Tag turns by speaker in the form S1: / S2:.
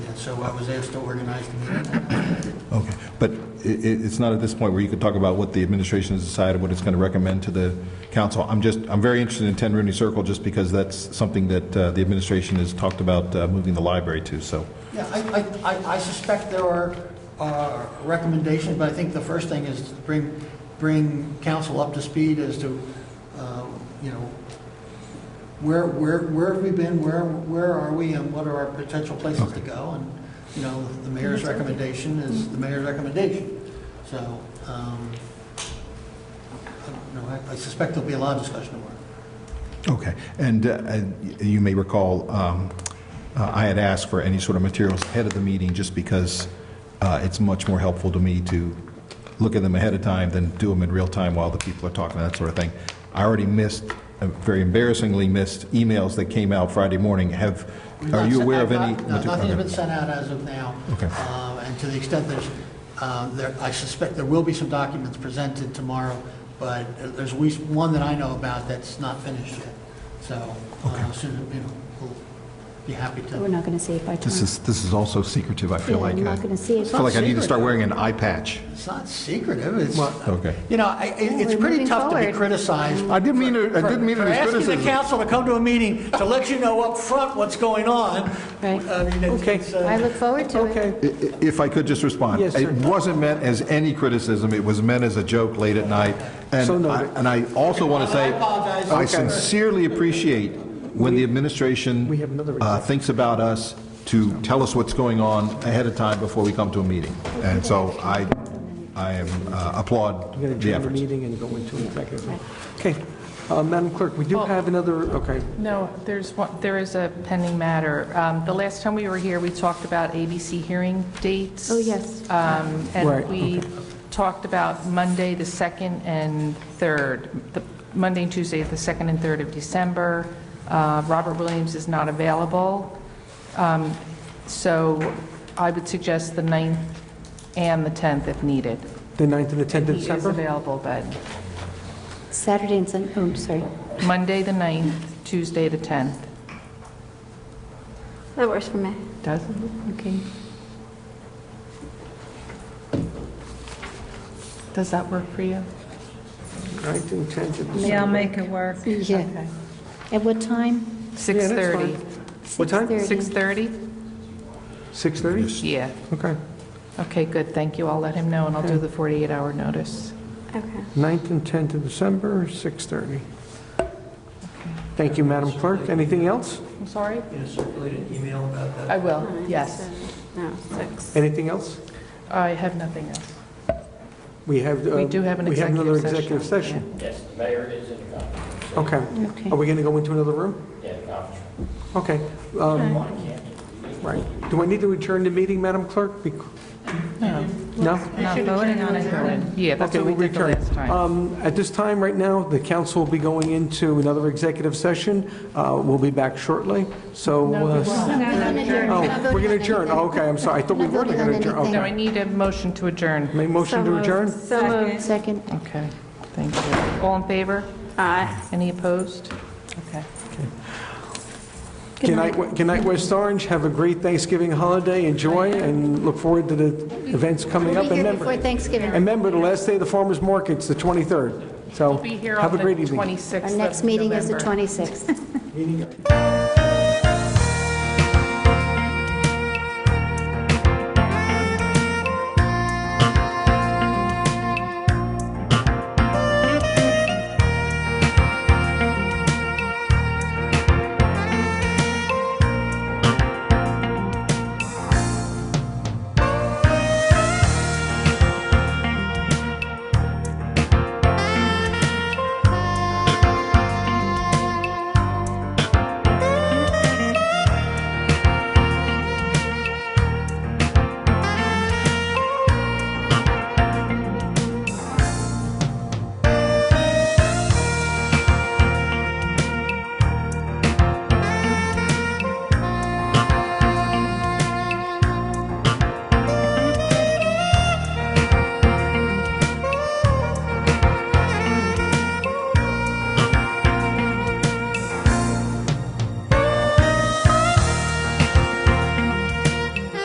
S1: so I was asked to organize the meeting.
S2: Okay, but i- i it's not at this point where you could talk about what the administration has decided, what it's going to recommend to the council. I'm just, I'm very interested in 10 Rooney Circle, just because that's something that uh, the administration has talked about uh, moving the library to, so.
S1: Yeah, I, I- I, I suspect there are uh, recommendations, but I think the first thing is to bring, bring council up to speed as to, uh, you know, where, where, where have we been, where, where are we, and what are our potential places to go? And, you know, the mayor's recommendation is the mayor's recommendation. So, um, I don't know, I- I suspect there'll be a lot of discussion tomorrow.
S2: Okay, and uh, and you may recall, um, uh, I had asked for any sort of materials ahead of the meeting, just because uh, it's much more helpful to me to look at them ahead of time than do them in real time while the people are talking, that sort of thing. I already missed, uh, very embarrassingly missed, emails that came out Friday morning. Have, are you aware of any?
S1: Not- not- Nothing's
S2: okay.
S1: been sent out as of now.
S2: Okay.
S1: Um, And to the extent there's, um, there, I suspect there will be some documents presented tomorrow, but there's at least one that I know about that's not finished yet. So, uh, soon, you know, we'll be happy
S3: We're
S1: to.
S3: not going to see it by
S2: This
S3: tomorrow.
S2: is, this is also secretive, I feel
S3: Yeah,
S2: like.
S3: I'm
S2: uh,
S3: not gonna see it.
S2: I feel like I need to
S1: It's not
S2: start
S1: secretive.
S2: wearing an eye patch.
S1: It's not secretive, it's,
S2: Okay.
S1: you know, I-
S3: Well,
S1: it- it's
S3: we're
S1: pretty
S3: moving
S1: tough to be
S3: forward.
S1: criticized.
S2: I didn't mean it, I
S1: for-
S2: didn't mean it as
S1: For asking
S2: criticism.
S1: the council to come to a meeting to let you know up front what's going on.
S3: Right.
S1: I mean, it's-
S4: Okay.
S1: it's, uh,
S3: I look forward to it.
S4: Okay,
S2: I- i- If I could just respond.
S4: Yes, sir.
S2: It wasn't meant as any criticism, it was meant as a joke late at night. And
S4: So
S2: I-
S4: noted.
S2: And I also want to say,
S1: I apologize.
S2: I
S1: Okay.
S2: sincerely appreciate when the administration
S4: We have another
S2: uh, thinks about us to tell us what's going on ahead of time before we come to a meeting. And so I, I am uh,
S4: we're going
S2: applaud
S4: to
S2: the
S4: adjourn the
S2: efforts.
S4: meeting and go into executive. Okay, Uh, Madam Clerk, we do
S5: Oh.
S4: have another, okay,
S5: No, there's one, there is a pending matter. Um, The last time we were here, we talked about ABC hearing dates.
S3: Oh, yes.
S5: Um,
S4: Right,
S5: And we talked about Monday, the 2nd and 3rd, the- Monday and Tuesday, the 2nd and 3rd of December. Uh, Robert Williams is not available. Um, So I would suggest the 9th and the 10th if needed.
S4: the 9th and the 10th of
S5: He is
S4: December?
S5: available, but
S3: Saturday and Sun, oh, sorry.
S5: Monday, the 9th, Tuesday, the 10th.
S6: That works for me.
S5: Does, okay. Does that work for you?
S4: 9th and 10th of December.
S7: Yeah, I'll make it work.
S3: Yeah. At what time?
S5: Six thirty.
S4: What time?
S3: 6:30.
S5: Six thirty?
S4: 6:30?
S5: Yeah.
S4: Okay,
S5: Okay, good, thank you. I'll let him know, and I'll do the forty-eight hour notice.
S6: Okay.
S4: 9th and 10th of December, 6:30. Thank you, Madam Clerk. Anything else?
S5: I'm sorry?
S1: You know, circulate an email about that.
S5: I will, yes.
S6: No, six.
S4: Anything else?
S5: I have nothing else.
S4: We have. uh,
S5: We do have an
S4: We have another
S5: executive
S4: executive
S5: session,
S4: session.
S8: Yes, the mayor is in the conference,
S4: Okay.
S3: Okay.
S4: Are we going to go into another room?
S8: yeah, the conference room.
S4: Okay. um, Right. Do I need to adjourn the meeting, Madam Clerk? Bec- No?
S7: Not voting on it.
S5: Yeah, that's
S4: Okay,
S5: what we
S4: we'll
S5: did the
S4: return.
S5: last time.
S4: Um, At this time, right now, the council will be going into another executive session. Uh, We'll be back shortly, so... uh, Oh, we're going to adjourn. Oh, Okay, I'm sorry. I thought we
S3: Not
S4: were
S3: voting
S4: going to
S3: on
S4: adjourn. Okay.
S5: No, I need a motion to adjourn.
S4: Make motion
S5: uh,
S4: to adjourn?
S6: So moved.
S3: Second.
S5: Okay, thank you. All in favor?
S6: Aye.
S5: Any opposed? Okay.
S4: Good night, Good night, West Orange. Have a great Thanksgiving holiday. Enjoy and look forward to the events coming
S3: We'll be
S4: up. And
S3: here
S4: remember-
S3: before Thanksgiving.
S4: And remember, the last day of the farmer's market's the 23rd. So
S5: Be here
S4: have
S5: on
S4: a
S5: the
S4: great evening.
S5: twenty-sixth
S3: Our next meeting is the 26th.